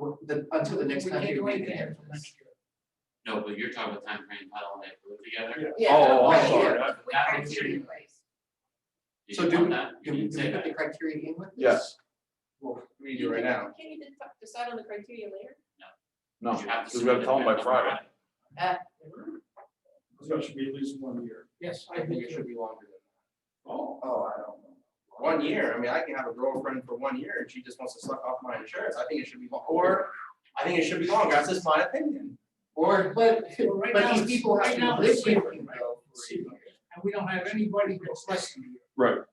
the, until the next We time can't you do read anything it. until next year. No, but you're talking about timeframe, how long they put it together. Yeah, Oh, right, I'm yeah. sorry. I- With That our is team in your- place. Did So you do want we- that? You Do we, didn't do we say put that. the criteria in with this? Yes, Well, we do right now. Can you de- decide on the criteria later? No, You have to because we gotta submit tell them it by by Friday. So it should be at least one year. Yes, I think it should be longer than Oh, Oh, I don't know. that. One year, I mean, I can have a girlfriend for one year and she just wants to suck off my insurance. I think it should be, lo- or I think it should be longer. That's just my opinion. Or, but, Well, right but now these it's- people have right now to live it's with safer, them right? though. for a year. And we don't have anybody that's less than a year.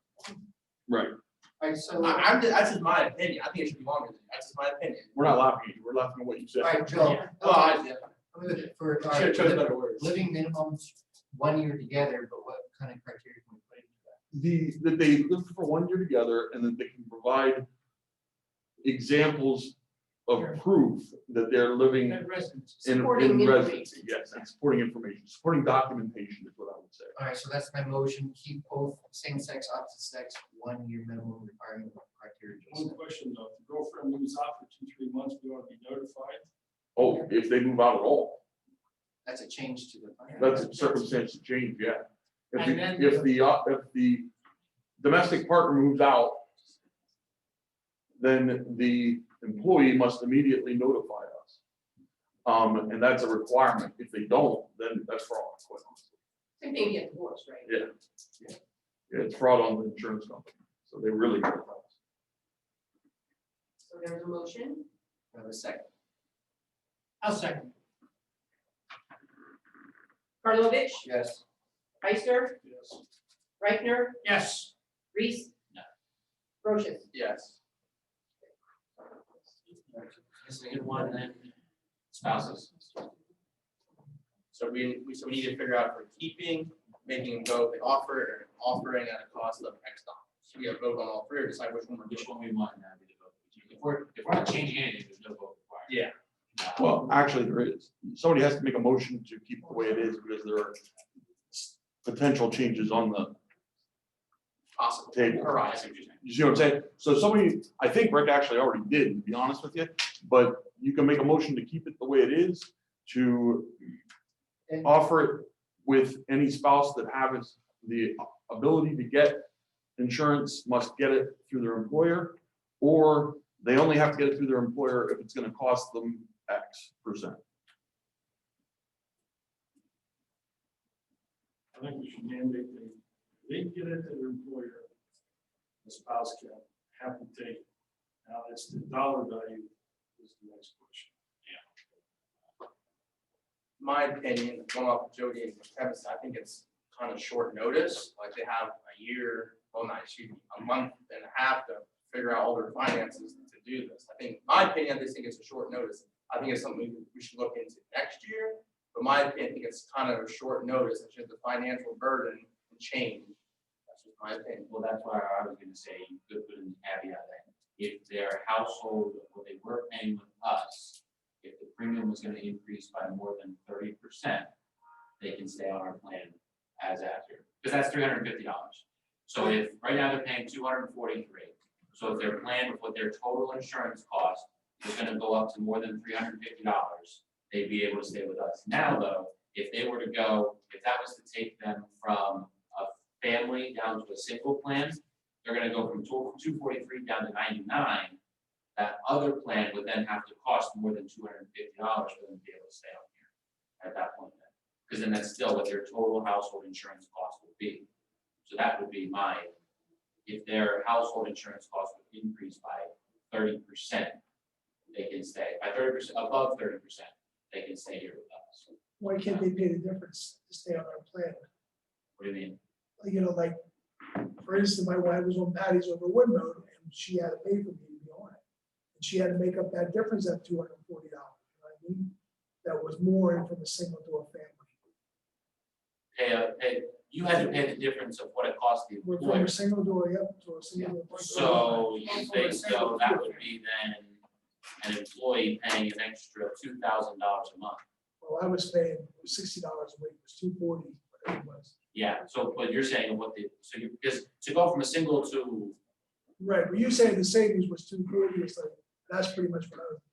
Right. Right, so, I, I'm, ju- that's just my opinion. I think it should be longer than that. That's just my opinion. we're not laughing at you, we're laughing at what you said. alright, Joe. Well, I, I'm with it for, all Oh, should right, have chosen living- better words. living minimums, one year together, but what kind of criteria can we put into that? The, that they live for one year together and that they can provide examples of proof that they're living That residence. in, Supporting in information. residency. Yes, and supporting information, supporting documentation is what I would say. Alright, so that's my motion, keep both same sex, opposite sex, one year minimum requirement of criteria. Joe Mm. One said. question though, if the girlfriend moves out for two, three months, we ought to be notified. Oh, if they move out at all, That's a change to the. plan. that's a circumstance to change, yeah. If And the, then- if the, uh, if the domestic partner moves out, then the employee must immediately notify us. Um, and that's a requirement. If they don't, then that's fraud. quite honestly. Same thing, you get divorced, right? Yeah, It's fraud on the insurance company, so they really. notify us. So there's a motion. Have a second. I'll second. Karlovic, Yes. Heister, Yes. Reichner, Yes, Reese. No. Brochus. Yes. Is it one then? Spouses. So we, we, so we need to figure out if we're keeping, making them go if they offer, or offering at a cost of X dollars. So we have to vote on all three or decide which one we're doing. Which one we want and that'd be the vote. If we're, if we're not changing anything, there's no vote required. Yeah. No. Well, actually, there is. Somebody has to make a motion to keep it the way it is because there are s- potential changes on the Possible. Table. All All right, right. I see what you're saying. You see what I'm saying? So somebody, I think Rick actually already did, to be honest with you, but you can make a motion to keep it the way it is, to And- offer it with any spouse that has the ability to get insurance must get it through their employer, or they only have to get it through their employer if it's gonna cost them X percent. I think we should mandate they, they get it to their employer. The spouse can have to take. it. Now, it's the dollar value is the next question. My opinion, going off of Jody and Kevin's, I think it's kind of short notice, like they have a year, well, not, excuse me, a month and a half to figure out all their finances to do this. I think, my opinion, I just think it's a short notice. I think it's something we should look into next year. But my opinion, I think it's kind of a short notice, it's just the financial burden and change. That's just my opinion. Well, that's why I was gonna say, you could put in the caveat that if their household, what they were paying with us, if the premium was gonna increase by more than thirty percent, they can stay on our plan as after, because that's three hundred and fifty dollars. So if, right now they're paying two hundred and forty-three, so if their plan with what their total insurance cost is gonna go up to more than three hundred and fifty dollars, they'd be able to stay with us. Now, though, if they were to go, if that was to take them from a family down to a single plan, they're gonna go from two forty-three down to ninety-nine. That other plan would then have to cost more than two hundred and fifty dollars for them to be able to stay on here at that point then. Because then that's still what their total household insurance cost would be. So that would be my, if their household insurance cost would increase by thirty percent, they can stay, by thirty percent, above thirty percent, they can stay here with us. why can't they pay the difference to stay on our plan? What do you mean? Like, You know, like, for instance, my wife was on Patty's over Woodmont, and she had to pay for me to be on it. And she had to make up that difference at two hundred and forty dollars, you know what I mean? That was more from a single to a family. Pay, a- pay, you had to pay the difference of what it cost the We're from employer. a single door, yep, to a single. door. So you Household think is so, single. that would be then an employee paying an extra two thousand dollars a month. Well, I was paying sixty dollars a week, it was two forty, whatever it was. Yeah, so but you're saying what the, so you, because to go from a single to, Right, but you saying the savings was two forty, it's like, that's pretty much what I was